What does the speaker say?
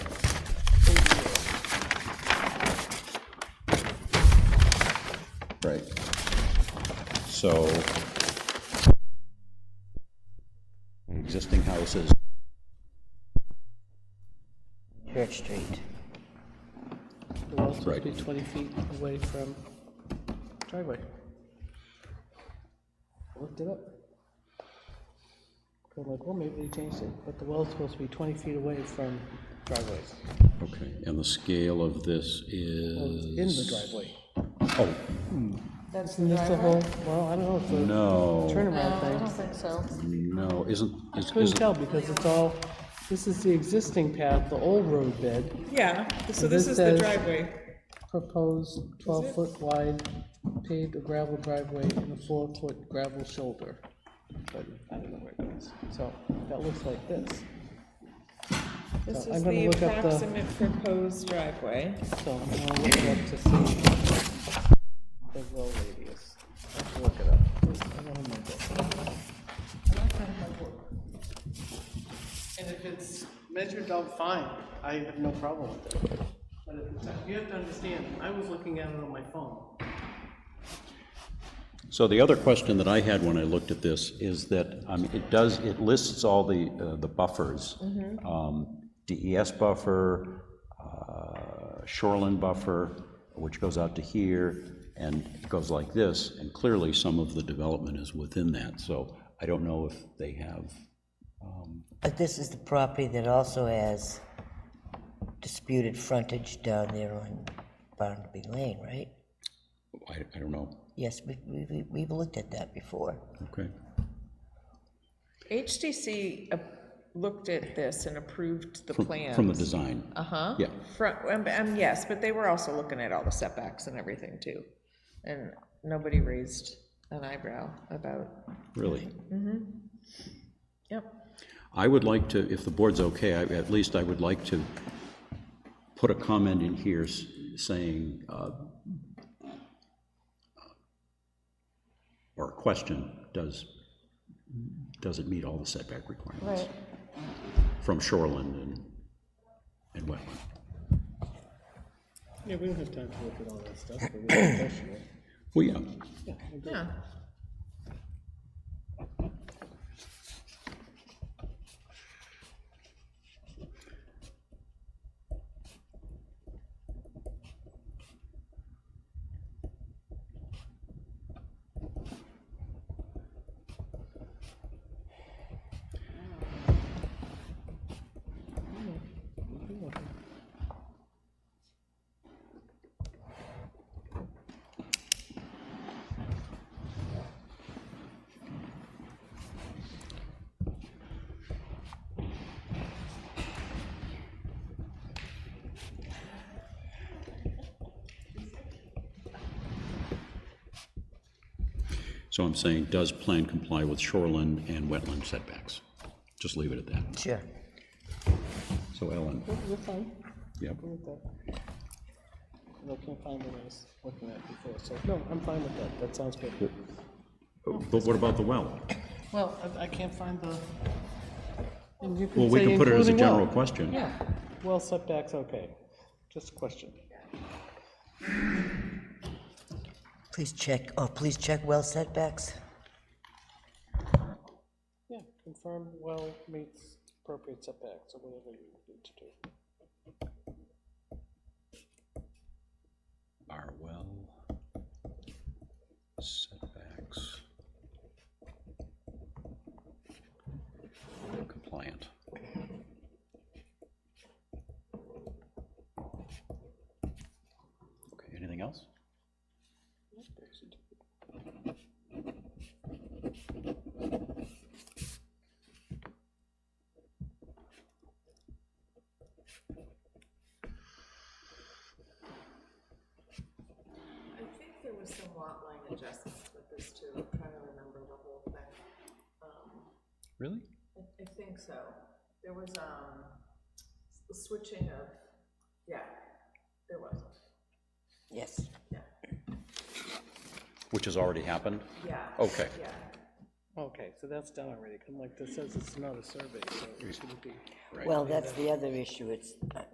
Right. So existing houses, Church Street. The wall's supposed to Right. be 20 feet away from driveway. I Looked it up. I'm like, well, maybe they changed it, but the well's supposed to be 20 feet away from driveways, okay, and the scale of this in the is, driveway. oh, That's And that's the whole, well, I don't know, it's a no, turnaround I thing. don't think so. no, isn't, is- Couldn't isn't, tell because it's all, this is the existing path, the old road bed, Yeah, so this this is the says- driveway. proposed 12-foot wide paved or gravel driveway and a four-foot gravel shoulder. But I don't know where it goes. So that looks like this. This I'm gonna is the look up the- approximate proposed driveway. So I'm gonna look it up to see the row radius. Let's look it up. I don't have my book. And if it's measured out fine, I have no problem with it. But if it's, you have to understand, I was looking at it on my phone. so the other question that I had when I looked at this is that, I mean, it does, it lists all the, uh, the buffers. Um, DES buffer, uh, shoreline buffer, which goes out to here, and it goes like this, and clearly some of the development is within that, so I don't know if they have But this is the property that also has disputed frontage down there on Barnaby Lane, right? I, I don't know, Yes, we, we, we- we've looked at that before. okay. HDC ap- uh, looked at this and approved the From- From the plans. design. Uh-huh. Yeah, From, um, um, yes, but they were also looking at all the setbacks and everything too. And nobody raised an eyebrow about, really. yep. I would like to, if the board's okay, I- at least I would like to put a comment in here s- saying, uh, or a question, does, does it meet all the setback requirements? From shoreline and, and wetland. Yeah, we don't have time to look at all that stuff, but we can question it. Well, yeah, Yeah. so I'm saying, does plan comply with shoreline and wetland setbacks? Just leave it at that. Sure. So Ellen, We're fine. yep, I'm with that. And I can't find what I was looking at before, so, no, I'm fine with that, that sounds good. but what about the well? Well, I, I can't find the. and you Well, could we say can put it as a including general well. question. Yeah, well setbacks, okay, just a question. Please check, oh, please check well setbacks. Yeah, confirm well meets appropriate setbacks, or whatever you need to do. Are well setbacks compliant. Okay, anything else? I think there was some lot line adjustments with this too, I'm trying to remember the whole thing. Um, Really? I I think so. There was, um, s- switching of, yeah, there was, Yes. yeah, Which has already happened? yeah. Okay. Yeah. Okay, so that's done already, 'cause I'm like, this says it's not a survey, so it shouldn't be. Well, that's the other issue, it's,